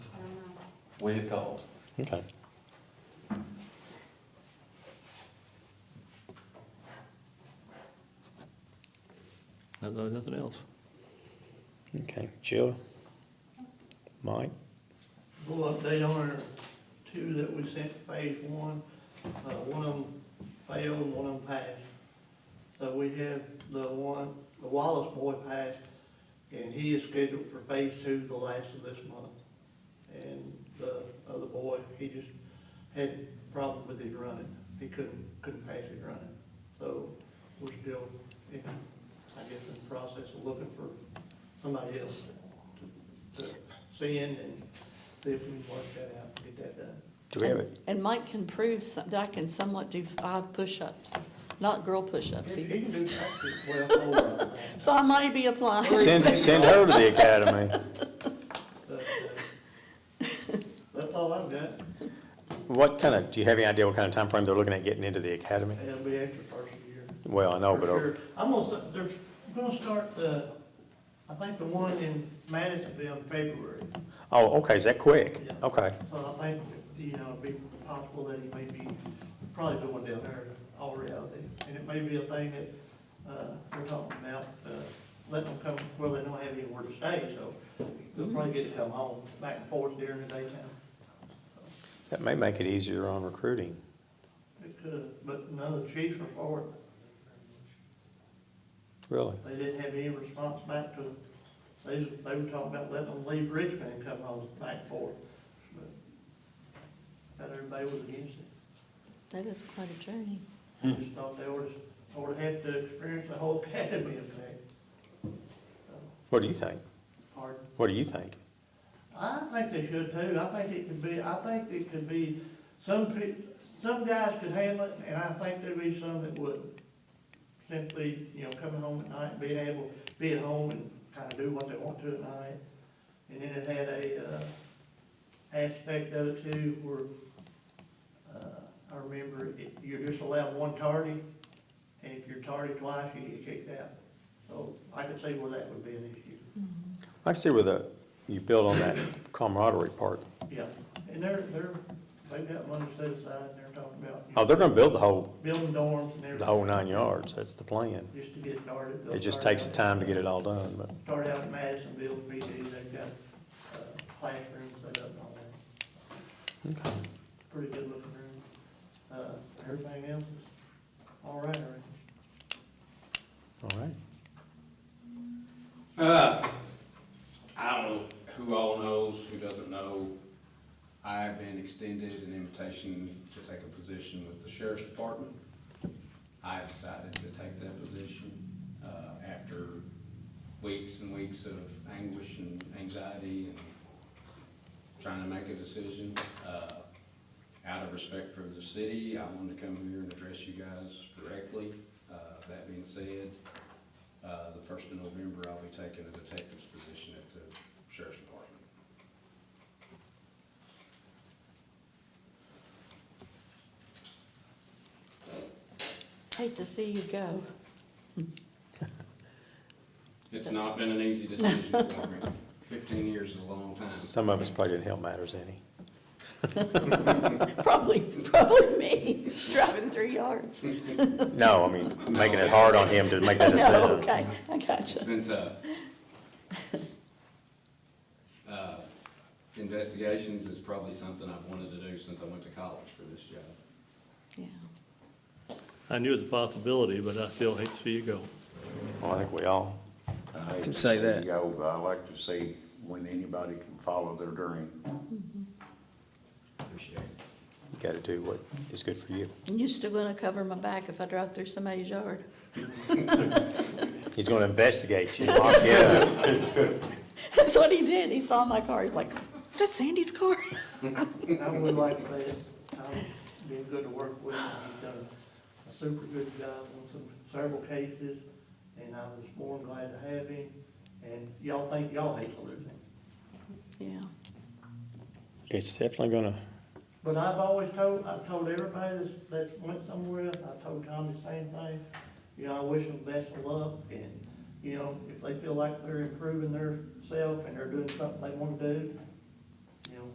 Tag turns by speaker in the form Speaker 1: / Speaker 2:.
Speaker 1: way it called.
Speaker 2: Okay.
Speaker 3: No- no- Nothing else.
Speaker 2: Okay. Jill? Mike?
Speaker 4: Little update on our two that we sent to phase one, uh, one of them failed and one of them passed. So we have the one, the Wallace boy passed, and he is scheduled for phase two the last of this month. And the other boy, he just had a problem with his running, he couldn't, couldn't pass his running. So we're still, in, I guess, in the process of looking for somebody else to, to send and see if we can work that out, get that done.
Speaker 2: Do we have it?
Speaker 5: And Mike can prove some- that I can somewhat do five push-ups, not girl push-ups.
Speaker 4: He
Speaker 5: either.
Speaker 4: can do practice well, hold on,
Speaker 5: So I might be applying.
Speaker 2: Send, send her to the academy.
Speaker 4: but, uh, that's all I've got,
Speaker 2: What kind of, do you have any idea what kind of time frame they're looking at getting into the academy?
Speaker 4: and it'll be extra first year.
Speaker 2: Well, I know, but,
Speaker 4: For
Speaker 2: uh,
Speaker 4: sure. I'm gonna, s- they're gonna start the, I think the one in Madison will be on February,
Speaker 2: oh, okay, is that quick?
Speaker 4: Yeah.
Speaker 2: Okay,
Speaker 4: so I think, you know, it'd be possible that he may be probably doing down there already, and it may be a thing that, uh, we're talking about, uh, letting them come, well, they don't have anywhere to stay, so they'll probably get to come home back and forth during the daytime.
Speaker 2: that may make it easier on recruiting.
Speaker 4: It could, but none of the chiefs were for it.
Speaker 2: Really?
Speaker 4: They didn't have any response back to, they, was- they were talking about letting them leave Richmond and come home back forth. But Not everybody was against it.
Speaker 5: That is quite a journey.
Speaker 4: They Just thought they ought to, ought to have to experience the whole academy of that. So,
Speaker 2: What do you think?
Speaker 4: Hard.
Speaker 2: What do you think?
Speaker 4: I think they should too. I think it could be, I think it could be, some pe, some guys could handle it, and I think there'd be some that wouldn't. Simply, you know, coming home at night, being able, be at home and kind of do what they want to at night. And then it had a, uh, aspect of it too, where, uh, I remember it- you're just allowed one tardy, and if you're tardy twice, you get kicked out. So I could see where that would be an issue.
Speaker 2: I see where the, you build on that camaraderie part.
Speaker 4: Yeah, and they're, they're, they've got money set aside, and they're talking about. you
Speaker 2: Oh, they're
Speaker 4: know,
Speaker 2: gonna build the whole,
Speaker 4: Building dorms and
Speaker 2: the
Speaker 4: everything,
Speaker 2: whole nine yards, that's the plan.
Speaker 4: just to get started. They'll
Speaker 2: It just
Speaker 4: start
Speaker 2: takes the
Speaker 4: out-
Speaker 2: time to get it all done, but,
Speaker 4: Start out in Madisonville, PD, they've got, uh, classrooms set up and all that,
Speaker 2: okay.
Speaker 4: pretty good looking room. Uh, everything else is all right, all right.
Speaker 2: All right.
Speaker 6: Uh, I don't know who all knows, who doesn't know. I have been extended an invitation to take a position with the sheriff's department. I have decided to take that position, uh, after weeks and weeks of anguish and anxiety and trying to make a decision. Uh, out of respect for the city, I wanted to come here and address you guys directly. Uh, that being said, uh, the first of November, I'll be taking a detective's position at the sheriff's department.
Speaker 5: Hate to see you go.
Speaker 6: It's not been an easy decision for me. Fifteen years is a long time.
Speaker 2: Some of us probably didn't help matters any.
Speaker 5: Probably, probably me, driving three yards.
Speaker 2: No, I mean, making it hard on him to make that
Speaker 5: No,
Speaker 2: decision.
Speaker 5: okay, I
Speaker 6: It's
Speaker 5: gotcha.
Speaker 6: been tough. Uh, Investigations is probably something I've wanted to do since I went to college for this job.
Speaker 5: Yeah.
Speaker 3: I knew the possibility, but I still hate to see you go.
Speaker 2: Well, I think we all,
Speaker 7: I
Speaker 2: Can say that.
Speaker 7: Go, but I like to see when anybody can follow their dream.
Speaker 6: Appreciate it.
Speaker 2: gotta do what is good for you.
Speaker 5: And you still gonna cover my back if I drive through somebody's yard?
Speaker 2: He's gonna investigate you, lock you up.
Speaker 5: That's what he did. He saw my car. He's like, is that Sandy's car?
Speaker 4: I would like to say it's, um, been good to work with, and he's done a super good job on some, several cases, and I was more than glad to have him, and y'all think y'all hate to lose him.
Speaker 5: Yeah.
Speaker 2: It's definitely gonna,
Speaker 4: But I've always told, I've told everybody that's, that's went somewhere, I told Tom the same thing. You know, I wish them best of luck and, you know, if they feel like they're improving their self and they're doing something they wanna do,